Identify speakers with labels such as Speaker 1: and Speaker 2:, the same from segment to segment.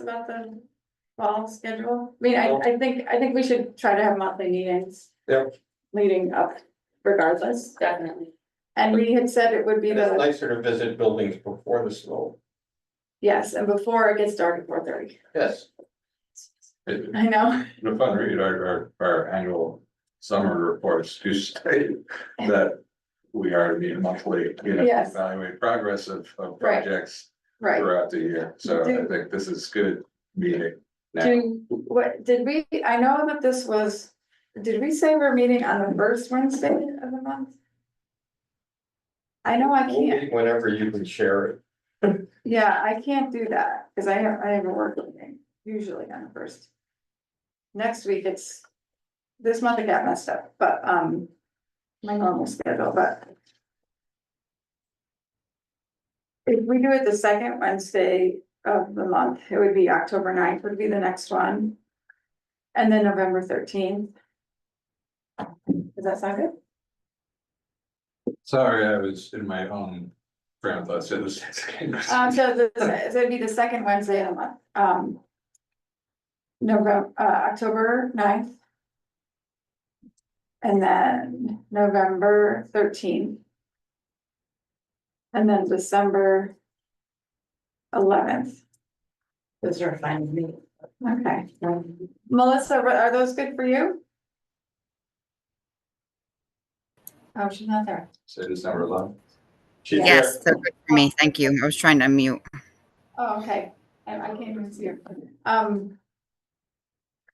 Speaker 1: about the fall schedule? I mean, I, I think, I think we should try to have monthly meetings.
Speaker 2: Yep.
Speaker 1: Leading up regardless,
Speaker 3: Definitely.
Speaker 1: and we had said it would be
Speaker 2: It's
Speaker 1: the,
Speaker 2: nicer to visit buildings before the snow,
Speaker 1: yes, and before it gets dark at four thirty,
Speaker 2: yes.
Speaker 4: It-
Speaker 1: I know,
Speaker 4: If I read our, our, our annual summer reports to state that we are being monthly, you know,
Speaker 1: Yes.
Speaker 4: evaluate progress of, of
Speaker 1: Right.
Speaker 4: projects
Speaker 1: right.
Speaker 4: throughout the year. So I think this is good meeting now.
Speaker 1: Do, what, did we, I know that this was, did we say we're meeting on the first Wednesday of the month? I know I
Speaker 2: We'll
Speaker 1: can't,
Speaker 2: meet Whenever you can share it,
Speaker 1: yeah, I can't do that, cause I have, I have a work meeting, usually on the first. Next week, it's, this month I got messed up, but, um, my normal schedule, but. If we do it the second Wednesday of the month, it would be October 9th would be the next one. And then November thirteenth. Does that sound good?
Speaker 4: Sorry, I was in my own train of thought, so this.
Speaker 1: Um, so the, so it'd be the second Wednesday of the month, um. November, uh, October 9th, And then November thirteenth. And then December. Eleventh,
Speaker 3: Those are fine with me. Um,
Speaker 1: okay. Melissa, are- are those good for you? Oh, she's not there.
Speaker 4: So it's number eleven.
Speaker 2: she's here,
Speaker 5: Yes, so good for me. Thank you. I was trying to unmute.
Speaker 1: Oh, okay. I, I can't even see her. Um.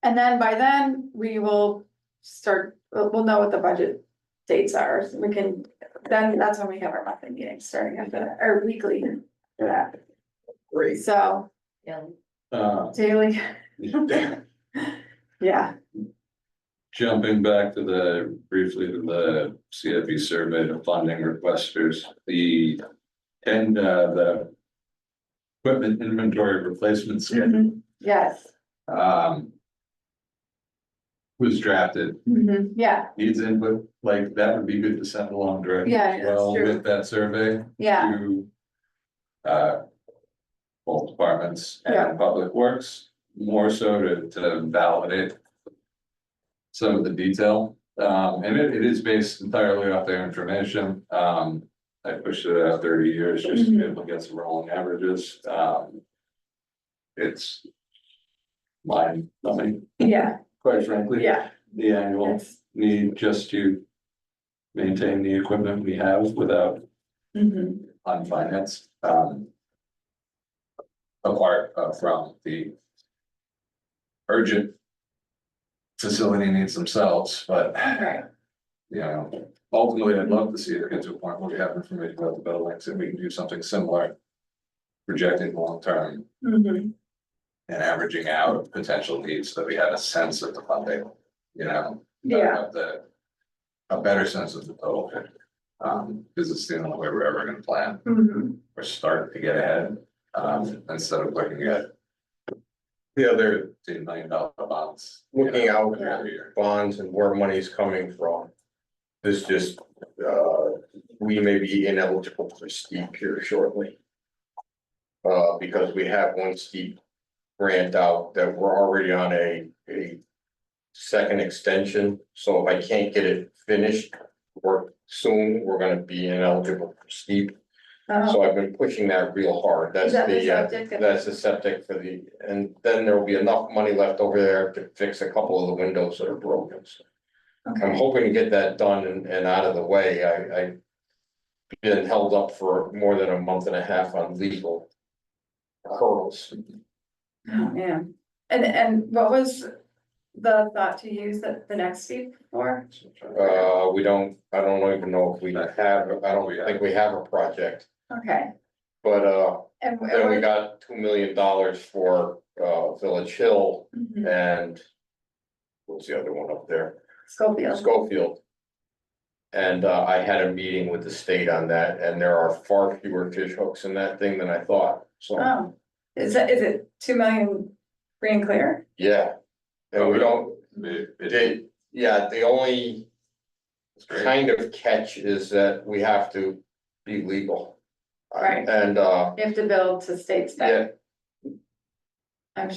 Speaker 1: And then by then, we will start, we'll, we'll know what the budget dates are. We can, then that's when we have our monthly meetings starting after that, or weekly. For that,
Speaker 2: great,
Speaker 1: so
Speaker 3: Yeah.
Speaker 4: Uh,
Speaker 1: daily, yeah,
Speaker 4: Jumping back to the, briefly to the CFP survey to funding requesters, the, and, uh, the. Equipment inventory replacement schedule,
Speaker 1: Mm-hmm. yes,
Speaker 4: um. Was drafted,
Speaker 1: Mhm. yeah,
Speaker 4: needs input, like, that would be good to send along directly
Speaker 1: Yeah,
Speaker 4: as
Speaker 1: that's
Speaker 4: well
Speaker 1: true.
Speaker 4: with that survey
Speaker 1: yeah,
Speaker 4: to. Uh. Both departments
Speaker 1: Yeah.
Speaker 4: and public works, more so to, to validate. Some of the detail, um, and it, it is based entirely off their information, um. I pushed it out thirty years just to
Speaker 1: Mm-hmm.
Speaker 4: be able to get some rolling averages, um. It's. Mine, nothing,
Speaker 1: yeah,
Speaker 4: quite frankly,
Speaker 1: yeah,
Speaker 4: the annual
Speaker 1: yes.
Speaker 4: need just to. Maintain the equipment we have without
Speaker 1: Mhm.
Speaker 4: on finance, um. Apart uh, from the. Urgent. Facility needs themselves, but,
Speaker 1: Right,
Speaker 4: you know, ultimately, I'd love to see it get to a point where we have information about the buildings and we can do something similar. Projecting long term
Speaker 1: Mhm.
Speaker 4: and averaging out potential needs so that we have a sense of the funding, you know. not
Speaker 1: Yeah.
Speaker 4: of The. A better sense of the total, picture. um, because it's the only way we're ever gonna plan
Speaker 1: Mhm.
Speaker 4: or start to get ahead, um, instead of looking at. The other ten million dollar bonds. you
Speaker 2: looking
Speaker 4: know,
Speaker 2: out
Speaker 1: Yeah.
Speaker 4: every year.
Speaker 2: bonds and where money's coming from. This just, uh, we may be ineligible for steep here shortly. Uh, because we have one steep grant out that we're already on a, a second extension, so if I can't get it finished or soon, we're gonna be ineligible for steep.
Speaker 1: Uh,
Speaker 2: So I've been pushing that real hard, that's
Speaker 1: Is that the
Speaker 2: the, uh,
Speaker 1: septic?
Speaker 2: that's the septic for the, and then there will be enough money left over there to fix a couple of the windows that are broken. So I'm
Speaker 1: Okay,
Speaker 2: hoping to get that done and, and out of the way, I, I. Been held up for more than a month and a half on legal. Hurdles,
Speaker 1: oh, man, and, and what was the thought to use the, the next week for?
Speaker 2: uh, we don't, I don't even know if we have, I don't think we have a project,
Speaker 1: Okay,
Speaker 2: but, uh,
Speaker 1: and. wh-
Speaker 2: then we got two million dollars for, uh, Village Hill
Speaker 1: Mhm.
Speaker 2: and. What's the other one up there?
Speaker 1: Schofield,
Speaker 2: Schofield. And uh, I had a meeting with the state on that, and there are far fewer fish hooks in that thing than I thought, so,
Speaker 1: oh, is that, is it two million free and clear?
Speaker 2: yeah. And we don't,
Speaker 4: It- it-
Speaker 2: they, yeah, the only
Speaker 4: it's great.
Speaker 2: kind of catch is that we have to be legal.
Speaker 1: Right.
Speaker 2: And uh,
Speaker 1: You have to build to state spec,
Speaker 2: yeah,